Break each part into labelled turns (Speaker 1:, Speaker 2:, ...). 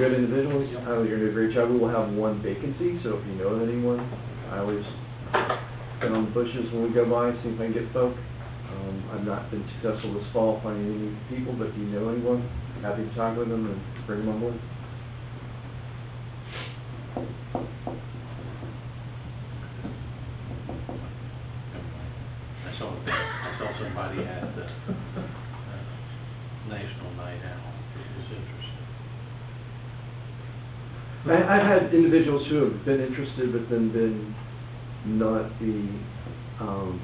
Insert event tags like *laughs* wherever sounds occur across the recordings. Speaker 1: Good individuals, I was gonna reach out, we will have one vacancy, so if you know of anyone, I always get on the bushes when we go by, see if I can get folk. Um, I've not been successful this fall finding any people, but if you know anyone, happy to talk with them and bring them on board.
Speaker 2: I saw, I saw somebody at the uh, National Night Out, it was interesting.
Speaker 1: I, I've had individuals who have been interested, but then been not the, um,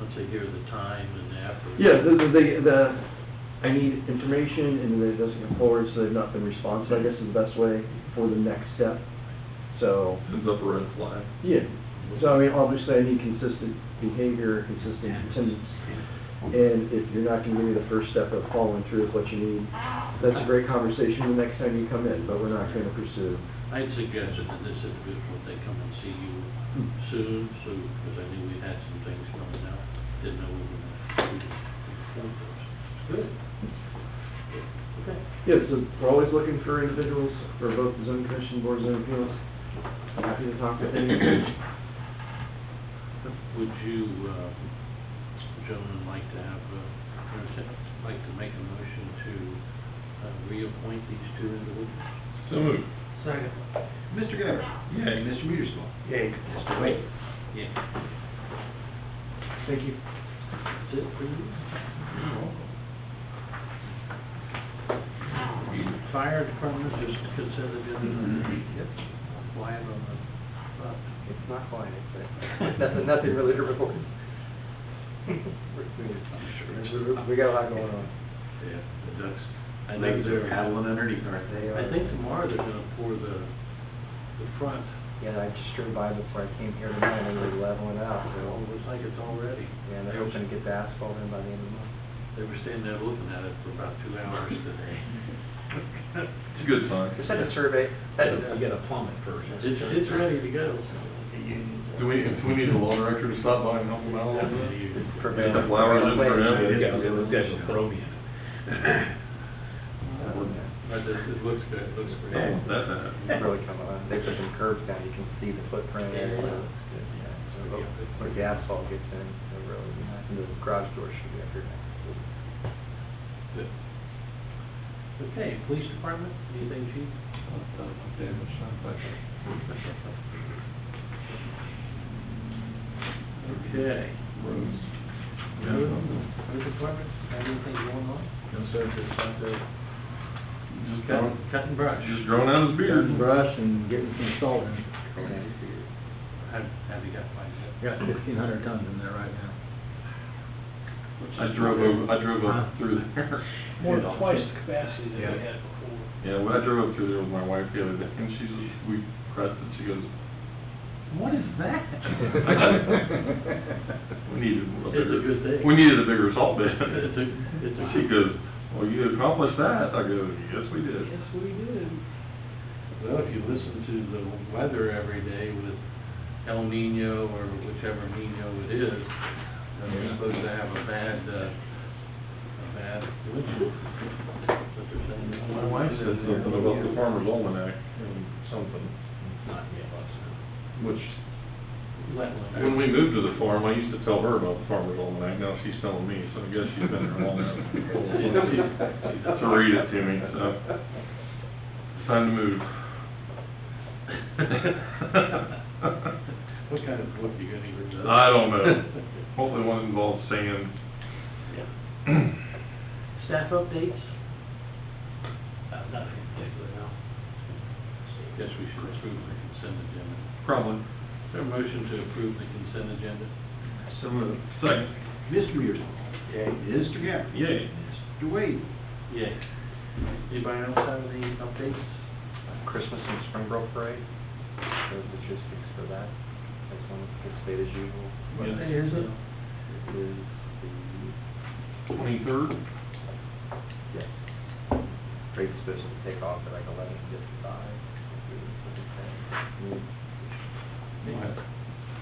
Speaker 2: Once they hear the time and the effort.
Speaker 1: Yeah, the, the- the, the, I need information, and then it doesn't come forward, so they've not been responsive, I guess is the best way for the next step. So,
Speaker 3: It's up a red flag.
Speaker 1: yeah, so I mean, obviously I need consistent behavior, consistent attendance. And if you're not gonna give me the first step of following through with what you need, that's a great conversation the next time you come in, but we're not gonna pursue.
Speaker 2: I'd suggested to this individual, they come and see you soon, so, because I knew we had some things coming out, didn't know we were going to inform those. Good. Okay.
Speaker 1: Yeah, so we're always looking for individuals for both the zoning commission, board of zoning appeals. I'm happy to talk with anyone.
Speaker 2: Would you, uh, gentlemen, like to have, uh, or to- like to make a motion to uh, reappoint these two individuals?
Speaker 3: So moved.
Speaker 4: Second.
Speaker 5: Mr. Gabbard?
Speaker 3: Yay.
Speaker 5: Mr. Mearsclaw?
Speaker 4: Yay.
Speaker 5: Mr. Wade?
Speaker 2: Yeah.
Speaker 1: Thank you.
Speaker 2: That's it for you? Fire department is considered in
Speaker 5: Yep.
Speaker 2: the line on the, uh,
Speaker 5: It's not quite, it's, nothing, nothing really to report. We- We got a lot going on.
Speaker 6: Yeah, the ducks,
Speaker 2: I
Speaker 6: I
Speaker 2: know
Speaker 6: think they're
Speaker 2: they're-
Speaker 6: paddling underneath, aren't they?
Speaker 5: They
Speaker 2: I
Speaker 5: are-
Speaker 2: think tomorrow they're gonna pour the, the front,
Speaker 5: Yeah, I just drove by before I came here tonight, and they were leveling out,
Speaker 2: it
Speaker 5: so,
Speaker 2: looks like it's all ready.
Speaker 5: yeah, they're hoping to get the asphalt in by the end of the month.
Speaker 2: They were standing there looking at it for about two hours
Speaker 3: *laughs*
Speaker 2: today.
Speaker 3: It's a good sign.
Speaker 5: Just had a survey.
Speaker 6: You gotta plumb it first.
Speaker 2: It's, it's ready to go.
Speaker 3: Do we, do we need the law director to stop by and help them out a little bit?
Speaker 5: Prevent-
Speaker 3: Get the flowers in
Speaker 5: Wait.
Speaker 3: for him. Yeah.
Speaker 2: But this, it looks good, it looks great.
Speaker 5: It's really coming on, they put some curves down, you can see the footprint, and it looks good, yeah. So, Where the asphalt gets in, it'll really be nice, and the garage door should be up here next week.
Speaker 2: Good. Okay, police department, anything, chief? Okay. Road, road department, anything going on?
Speaker 1: No, sir, just want to
Speaker 3: Just
Speaker 2: Cutting,
Speaker 3: growing-
Speaker 2: cutting brush.
Speaker 3: Just growing out his beard.
Speaker 1: Cutting brush and getting some salt in.
Speaker 2: Have, have you got mine yet?
Speaker 1: Got fifteen hundred tons in there right now.
Speaker 3: I drove over, I drove up through
Speaker 1: *laughs*
Speaker 3: there.
Speaker 4: More than twice the capacity that we
Speaker 3: Yeah.
Speaker 4: had before.
Speaker 3: Yeah, when I drove up through there with my wife the other day, and she's, we pressed it, she goes,
Speaker 2: What is that?
Speaker 4: *laughs*
Speaker 3: we needed a
Speaker 2: It's a
Speaker 3: bigger.
Speaker 2: good thing.
Speaker 3: We needed a bigger salt
Speaker 2: *laughs*
Speaker 3: bin.
Speaker 2: It's a- it's a-
Speaker 3: She goes, well, you accomplished that. I go, yes, we did.
Speaker 2: Yes, we did. Well, if you listen to the weather every day with El Nino or whichever Nino it is, then we're supposed to have a bad, uh, a bad winter. But they're saying it's
Speaker 3: My wife said something about the farmer's almanac and something,
Speaker 2: Not yet, it's
Speaker 3: which,
Speaker 2: not. *laughs*
Speaker 3: when we *laughs* moved to the farm, I used to tell her about the farmer's almanac, now she's telling me, so I guess she's been there
Speaker 2: *laughs*
Speaker 3: long enough. To read it to me, so, time to move.
Speaker 2: *laughs* What kind of book you gonna read?
Speaker 3: I don't know, *laughs*
Speaker 2: *laughs*
Speaker 3: hopefully one involves sand.
Speaker 2: Yeah. Staff updates? Uh, nothing particular, no. Guess we should approve the consent agenda.
Speaker 3: Probably.
Speaker 2: Is there a motion to approve the consent agenda?
Speaker 5: So moved.
Speaker 3: Second.
Speaker 5: Mr. Mearsclaw? Yay. Mr. Gabbard?
Speaker 3: Yay.
Speaker 5: Mr. Wade?
Speaker 2: Yay. Anybody else have any updates?
Speaker 5: Christmas and Spring Grove Parade, the logistics for that, that's on the state as usual.
Speaker 2: What
Speaker 3: Yeah.
Speaker 2: day is it?
Speaker 5: It is the,
Speaker 3: Twenty-third?
Speaker 5: yes, parade's supposed to take off at like eleven fifty-five.
Speaker 2: *laughs*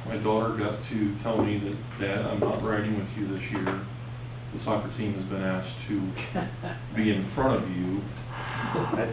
Speaker 3: My my daughter got to tell me that, Dad, I'm not riding with you this year. The soccer team has been asked to be in front of you
Speaker 1: That's